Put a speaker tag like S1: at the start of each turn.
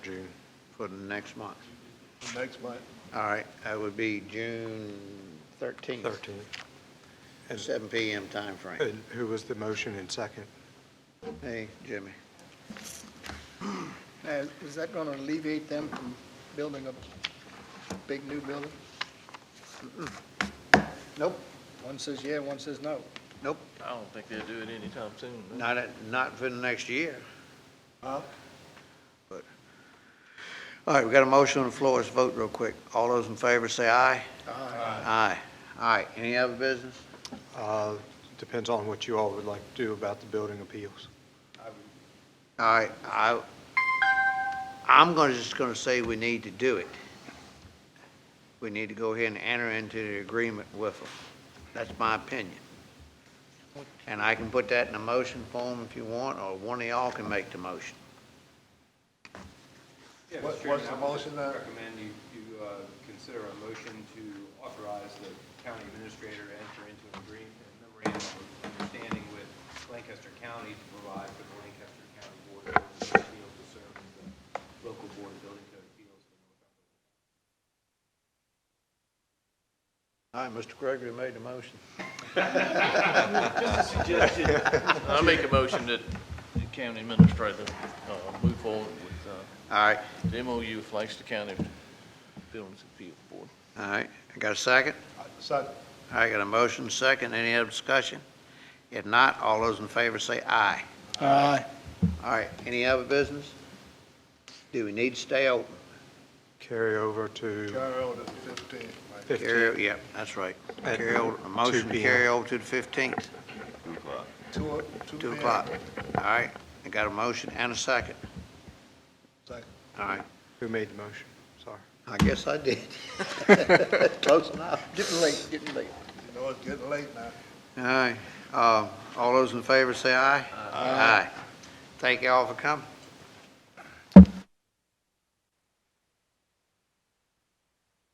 S1: for next month?
S2: Next month.
S1: All right, that would be June thirteenth,
S3: 13. And-
S1: seven PM timeframe.
S3: And who was the motion and second?
S1: Hey, Jimmy.
S2: Now, is that going to alleviate them from building a big new building?
S1: Nope,
S2: One says yeah, one says no.
S1: nope,
S4: I don't think they'll do it anytime soon. no.
S1: not, at- not for the next year.
S2: Huh?
S1: All right, we got a motion on the floor, let's vote real quick. All those in favor say aye. Aye. All right, any other business?
S3: Uh, Depends on what you all would like to do about the building appeals.
S1: All right, I, I'm gonna, just gonna say we need to do it. We need to go ahead and enter into the agreement with them. That's my opinion. And I can put that in a motion form if you want, or one of y'all can make the motion.
S5: Yeah,
S2: What-
S5: Mr. Chairman,
S2: what's the
S5: I would
S2: motion then?
S5: Recommend you, you uh, consider a motion to authorize the county administrator to enter into an agreement, memorandum of understanding with Lancaster County to provide for the Lancaster County Board of Building Appeals to serve as the local board of building code appeals. for Northumberland.
S1: All right, Mr. Gregory made the motion.
S4: I make a motion that the county administrator uh, move forward with uh,
S1: All right,
S4: the MOU with Lancaster County Buildings Appeal Board.
S1: all right, I got a second?
S2: So,
S1: All right, got a motion, second, any other discussion? If not, all those in favor say aye.
S2: aye.
S1: All right, any other business? Do we need to stay open?
S3: Carry over to
S2: Carry over to fifteen. Mike.
S3: 15.
S1: Carry, yep, that's right.
S3: At
S1: Carry over, a
S3: 2
S1: motion to
S3: p.m.
S1: carry over to the 15th,
S2: Two, o-
S1: 2
S2: p.m.
S1: o'clock. All right, I got a motion and a second.
S2: Second.
S1: All right,
S3: Who made the motion? Sorry.
S1: I guess I did. Close enough.
S2: Getting late, getting late. You know, it's getting late now.
S1: All right, uh, all those in favor say aye. Aye. Thank you all for coming.